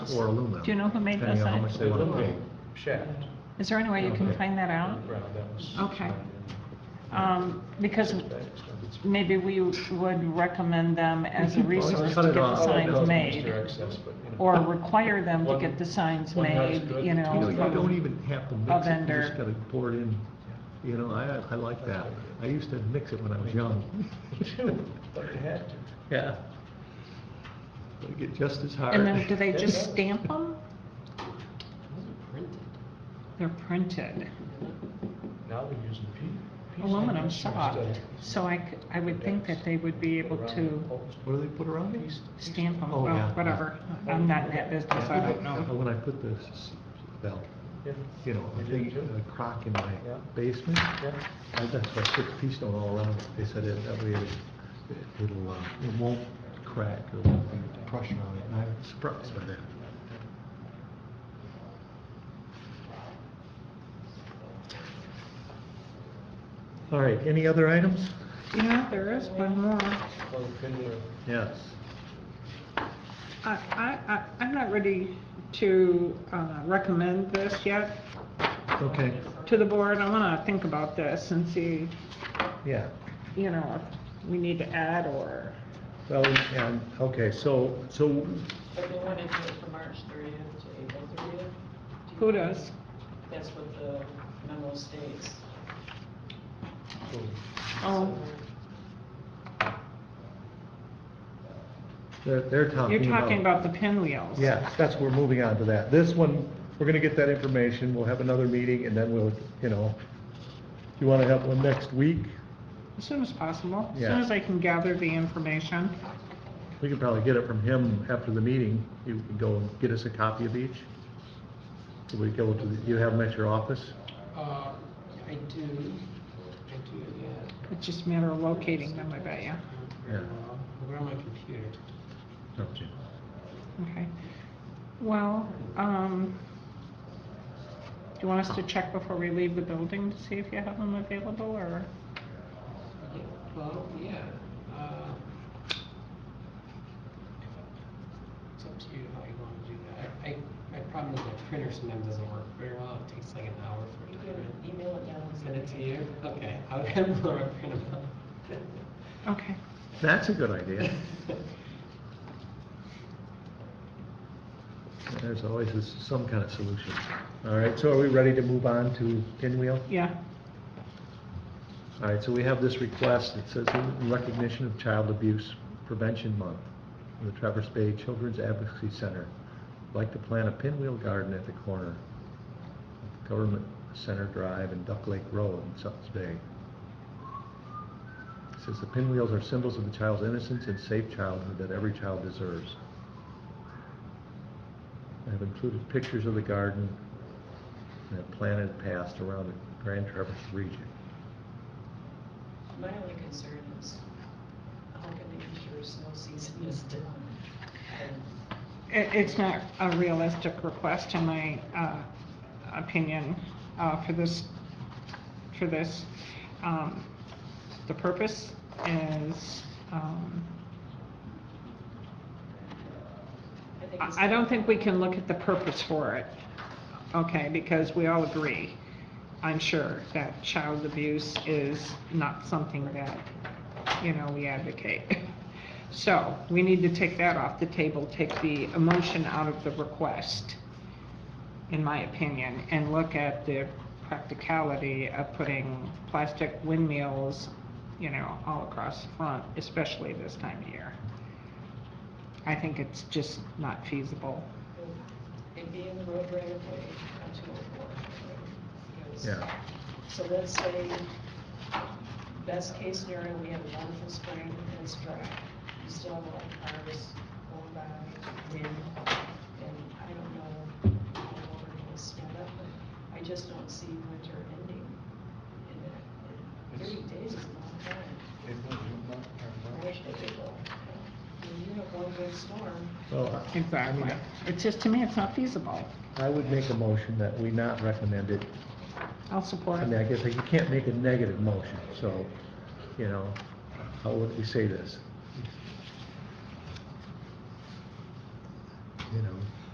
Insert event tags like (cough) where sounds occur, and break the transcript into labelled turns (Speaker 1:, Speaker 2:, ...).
Speaker 1: or aluminum.
Speaker 2: Do you know who made
Speaker 1: depending
Speaker 2: those
Speaker 1: on how
Speaker 2: signs?
Speaker 1: much they want to pay.
Speaker 3: Shaft.
Speaker 2: Is there any way you can
Speaker 1: Okay.
Speaker 2: find that out?
Speaker 3: Right, that was-
Speaker 2: Okay. Um, because maybe we would recommend them as a
Speaker 1: We could always
Speaker 2: resource to
Speaker 1: cut
Speaker 2: get
Speaker 1: it
Speaker 2: the
Speaker 1: off.
Speaker 2: signs
Speaker 3: Those
Speaker 2: made,
Speaker 3: Mr. Excess, but, you know.
Speaker 2: or require them to get the signs
Speaker 3: One- one house
Speaker 2: made,
Speaker 3: good,
Speaker 2: you
Speaker 3: two
Speaker 1: You know,
Speaker 2: know.
Speaker 1: you
Speaker 3: from
Speaker 1: don't even have to
Speaker 2: a
Speaker 1: mix it, you
Speaker 2: vendor.
Speaker 1: just gotta pour it in. You know, I, I like that. I used to mix it when I was
Speaker 2: (laughs)
Speaker 1: young.
Speaker 3: Two, (laughs) but you had to.
Speaker 1: Yeah. They get just as hard.
Speaker 2: And then, do they just stamp them? They're printed.
Speaker 3: Now we're using P.
Speaker 2: Aluminum soft, so I, c- I would think that they would be able to
Speaker 1: What do they put around it?
Speaker 2: stamp them,
Speaker 1: Oh, yeah. Oh.
Speaker 2: well, whatever. I'm not in that business, I don't know.
Speaker 1: When I put this, well, you know, a
Speaker 3: You did
Speaker 1: big
Speaker 3: too?
Speaker 1: uh, crock in my
Speaker 3: Yeah.
Speaker 1: basement, I, that's why I put Keystone all around it. They said it, that way it- it'll, uh, it won't crack or won't be pressure on it, and I'm surprised by that. All right, any other items?
Speaker 2: You know, there is one more.
Speaker 1: Yes.
Speaker 2: I, I, I- I'm not ready to uh, recommend this yet
Speaker 1: Okay,
Speaker 2: to the board. I want to think about this and see,
Speaker 1: yeah.
Speaker 2: you know, if we need to add or,
Speaker 1: Well, and, okay, so, so
Speaker 4: But they wanted to do it from March thirtieth to April thirtieth.
Speaker 2: who does?
Speaker 4: That's what the memo states.
Speaker 2: Oh,
Speaker 1: they're, they're talking
Speaker 2: you're
Speaker 1: about.
Speaker 2: talking about the pinwheels.
Speaker 1: Yes, that's, we're moving on to that. This one, we're gonna get that information, we'll have another meeting, and then we'll, you know, you wanna have one next week?
Speaker 2: As soon as possible, as
Speaker 1: Yeah.
Speaker 2: soon as I can gather the information.
Speaker 1: We could probably get it from him after the meeting, you can go and get us a copy of each. Do We go to, the- you have them at your office?
Speaker 5: Uh, I do, I do, yeah.
Speaker 2: It's just a matter of locating them, I bet you.
Speaker 1: Yeah.
Speaker 5: Uh, We're on my computer.
Speaker 1: Okay.
Speaker 2: Okay. Well, um, do you want us to check before we leave the building to see if you have them available or?
Speaker 5: Yeah, Well, yeah. uh, It's up to you how you want to do that. I, I- my problem is my printer sometimes doesn't work very well. It takes like an hour for
Speaker 4: You
Speaker 5: it to
Speaker 4: can
Speaker 5: print.
Speaker 4: email it down.
Speaker 5: Send it to you? Okay, I'll have (laughs) Laura print them out.
Speaker 2: Okay.
Speaker 1: That's a good idea. There's always s- some kind of solution. All right, so are we ready to move on to pinwheel?
Speaker 2: Yeah.
Speaker 1: All right, so we have this request, it says in recognition of Child Abuse Prevention Month, the Traverse Bay Children's Advocacy Center. I'd Like to plant a pinwheel garden at the corner of Government Center Drive and Duck Lake Road in Suttons Bay. It says the pinwheels are symbols of the child's innocence and safe childhood that every child deserves. I have included pictures of the garden that planted past around the Grand Traverse region.
Speaker 4: My only concern is how can they ensure snow season is done? And
Speaker 2: It, it's not a realistic request in my, uh, opinion, uh, for this, for this. Um, the purpose is, um,
Speaker 4: I think it's-
Speaker 2: I, I don't think we can look at the purpose for it, okay, because we all agree, I'm sure, that child abuse is not something that, you know, we advocate. (laughs) So, we need to take that off the table, take the emotion out of the request, in my opinion, and look at the practicality of putting plastic windmills, you know, all across the front, especially this time of year. I think it's just not feasible.
Speaker 4: It'd be in the road right away on two oh four.
Speaker 1: Yeah.
Speaker 4: So let's say, best case scenario, we have a wonderful spring and it's dry. You still have a harvest going by, wind, and I don't know how long it will stand up, but I just don't see winter ending in that. Thirty days is a long time. I wish they could go. When you have one good storm,
Speaker 1: Well, I-
Speaker 2: Exactly. It's just, to me, it's not feasible.
Speaker 1: I would make a motion that we not recommend it.
Speaker 2: I'll support
Speaker 1: I mean,
Speaker 2: it.
Speaker 1: I guess you can't make a negative motion, so, you know, how would we say this?